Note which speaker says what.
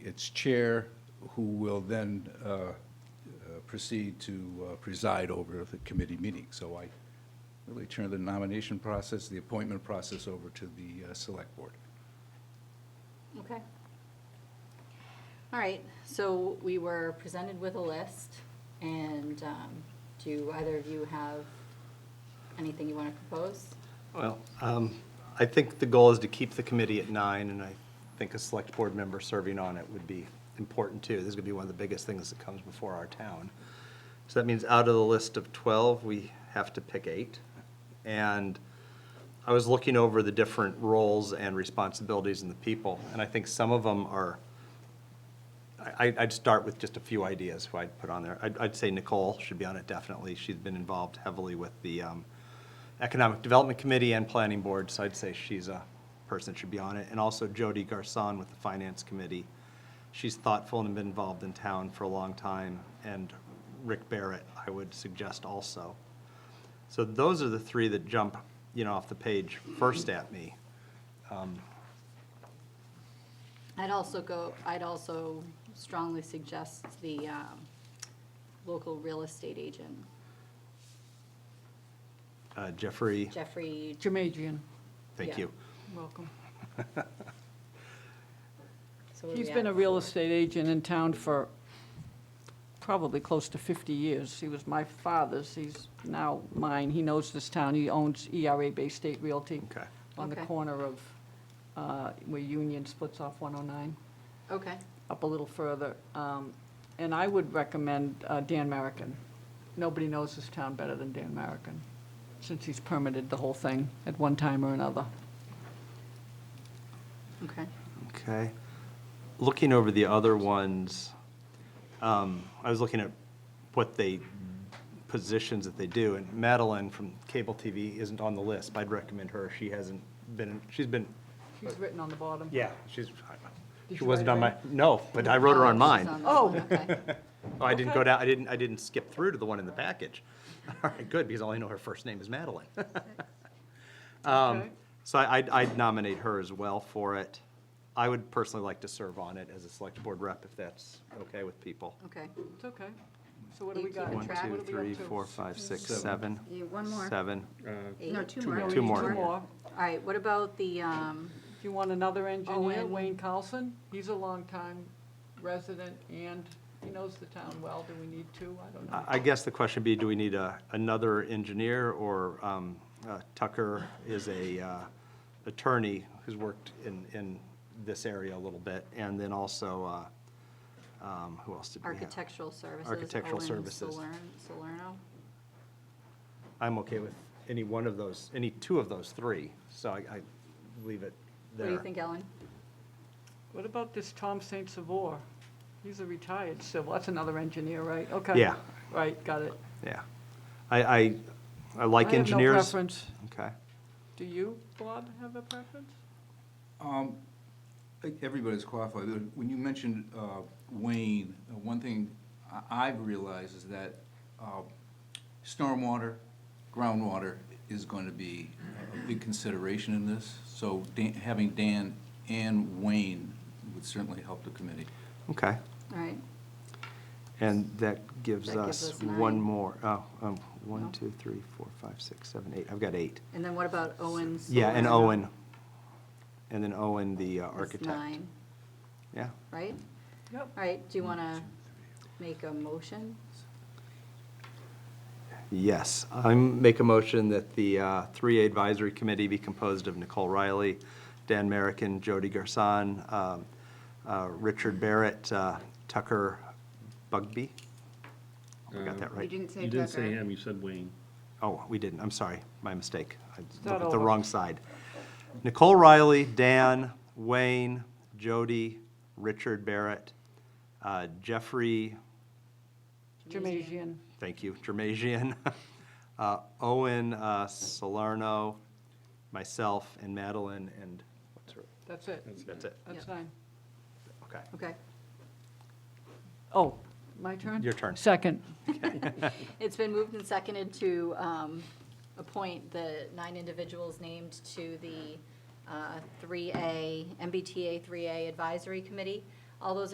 Speaker 1: its chair, who will then uh, uh, proceed to uh, preside over the committee meeting. So I really turn the nomination process, the appointment process over to the uh, Select Board.
Speaker 2: Okay. All right, so we were presented with a list, and um, do either of you have anything you want to propose?
Speaker 3: Well, um, I think the goal is to keep the committee at nine, and I think a select board member serving on it would be important, too. This is going to be one of the biggest things that comes before our town. So that means out of the list of 12, we have to pick eight. And I was looking over the different roles and responsibilities and the people, and I think some of them are, I, I- I'd start with just a few ideas who I'd put on there. I'd, I'd say Nicole should be on it definitely. She's been involved heavily with the um, Economic Development Committee and Planning Board, so I'd say she's a person that should be on it. And also Jody Garson with the Finance Committee. She's thoughtful and been involved in town for a long time. And Rick Barrett, I would suggest also. So those are the three that jump, you know, off the page first at me.
Speaker 2: I'd also go, I'd also strongly suggest the um, local real estate agent,
Speaker 3: Uh, Jeffrey,
Speaker 2: Jeffrey,
Speaker 4: Jermadrian,
Speaker 3: thank
Speaker 2: yeah.
Speaker 3: you.
Speaker 4: welcome.
Speaker 2: so what do
Speaker 4: He's
Speaker 2: we
Speaker 4: been a
Speaker 2: have?
Speaker 4: real estate agent in town for probably close to 50 years. He was my father's, he's now mine. He knows this town, he owns ERA Bay State Realty
Speaker 3: Okay.
Speaker 4: on the
Speaker 2: Okay.
Speaker 4: corner of, uh, where Union splits off 109,
Speaker 2: Okay,
Speaker 4: up a little further. Um, And I would recommend uh, Dan Merrickin. Nobody knows this town better than Dan Merrickin, since he's permitted the whole thing at one time or another.
Speaker 2: okay.
Speaker 3: Okay. Looking over the other ones, um, I was looking at what they, positions that they do, and Madeline from cable TV isn't on the list, but I'd recommend her. She hasn't been, she's been,
Speaker 4: He's written on the bottom.
Speaker 3: yeah, she's,
Speaker 4: Did
Speaker 3: she
Speaker 4: you
Speaker 3: wasn't
Speaker 4: write
Speaker 3: on my,
Speaker 4: her
Speaker 3: no, but I wrote her on
Speaker 2: Oh, she's
Speaker 3: mine.
Speaker 2: that one, okay.
Speaker 3: Oh, I didn't go
Speaker 4: Okay.
Speaker 3: down, I didn't, I didn't skip through to the one in the package. All right, good, because I only know her first name is Madeline. Um,
Speaker 4: Okay.
Speaker 3: So I- I'd, I'd nominate her as well for it. I would personally like to serve on it as a select board rep, if that's okay with people.
Speaker 2: Okay,
Speaker 4: It's okay. So what do we
Speaker 2: Thank you.
Speaker 4: got?
Speaker 2: One,
Speaker 3: One,
Speaker 2: Track.
Speaker 3: two,
Speaker 2: two,
Speaker 4: What are we
Speaker 3: three,
Speaker 4: up to?
Speaker 3: four, five, six,
Speaker 1: Seven.
Speaker 3: seven.
Speaker 5: Yeah, one more.
Speaker 3: Seven.
Speaker 2: eight.
Speaker 5: No, two more.
Speaker 3: Two more.
Speaker 4: Two more.
Speaker 2: All right, what about the, um,
Speaker 4: Do you want another engineer,
Speaker 2: and-
Speaker 4: Wayne Carlson? He's a longtime resident and he knows the town well. Do we need two? I don't know.
Speaker 3: I I guess the question would be, do we need a, another engineer, or um, uh, Tucker is a uh, attorney who's worked in, in this area a little bit, and then also, uh, um, who else did we have?
Speaker 2: architectural services?
Speaker 3: Architectural
Speaker 2: Owen
Speaker 3: services.
Speaker 2: Solern- Salerno?
Speaker 3: I'm okay with any one of those, any two of those three, so I, I leave it
Speaker 2: What
Speaker 3: there.
Speaker 2: do you think, Ellen?
Speaker 4: What about this Tom St. Savor? He's a retired civil. That's another engineer, right? Okay.
Speaker 3: Yeah.
Speaker 4: Right, got it.
Speaker 3: Yeah. I, I, I like
Speaker 4: I have no
Speaker 3: engineers.
Speaker 4: preference.
Speaker 3: Okay.
Speaker 4: Do you, Bob, have a preference?
Speaker 1: Um, I think Everybody's qualified. When you mentioned uh, Wayne, uh, one thing I- I've realized is that uh, stormwater, groundwater is going to be a- a big consideration in this. So Dan- having Dan and Wayne would certainly help the committee.
Speaker 3: Okay.
Speaker 2: All right,
Speaker 3: And that gives
Speaker 2: That gives
Speaker 3: us
Speaker 2: us
Speaker 3: one
Speaker 2: nine.
Speaker 3: more, oh, um, one,
Speaker 2: No.
Speaker 3: two, three, four, five, six, seven, eight. I've got eight.
Speaker 2: and then what about Owen?
Speaker 3: Yeah, and
Speaker 2: Salerno?
Speaker 3: Owen. And then Owen, the uh,
Speaker 2: That's
Speaker 3: architect.
Speaker 2: nine,
Speaker 3: Yeah.
Speaker 2: right?
Speaker 4: Yep.
Speaker 2: All right, do you want to make a motion?
Speaker 3: Yes. I make a motion that the uh, 3A Advisory Committee be composed of Nicole Riley, Dan Merrickin, Jody Garson, um, uh, Richard Barrett, uh, Tucker Bugby. I got that
Speaker 5: You
Speaker 3: right.
Speaker 5: didn't say
Speaker 6: You didn't say
Speaker 5: Tucker.
Speaker 6: him, you said Wayne.
Speaker 3: Oh, we didn't. I'm sorry. My mistake. I
Speaker 4: Start
Speaker 3: looked at the
Speaker 4: over.
Speaker 3: wrong side. Nicole Riley, Dan, Wayne, Jody, Richard Barrett, uh, Jeffrey,
Speaker 4: Jamasian.
Speaker 3: Thank you, Jermasian. Uh, Owen uh, Salerno, myself, and Madeline, and what's her,
Speaker 4: That's it.
Speaker 3: that's it,
Speaker 4: That's
Speaker 2: Yep.
Speaker 4: nine.
Speaker 3: okay.
Speaker 2: Okay,
Speaker 4: Oh, my turn?
Speaker 3: Your turn.
Speaker 4: Second.
Speaker 2: it's been moved and seconded to um, appoint the nine individuals named to the uh, 3A, MBTA 3A Advisory Committee. All those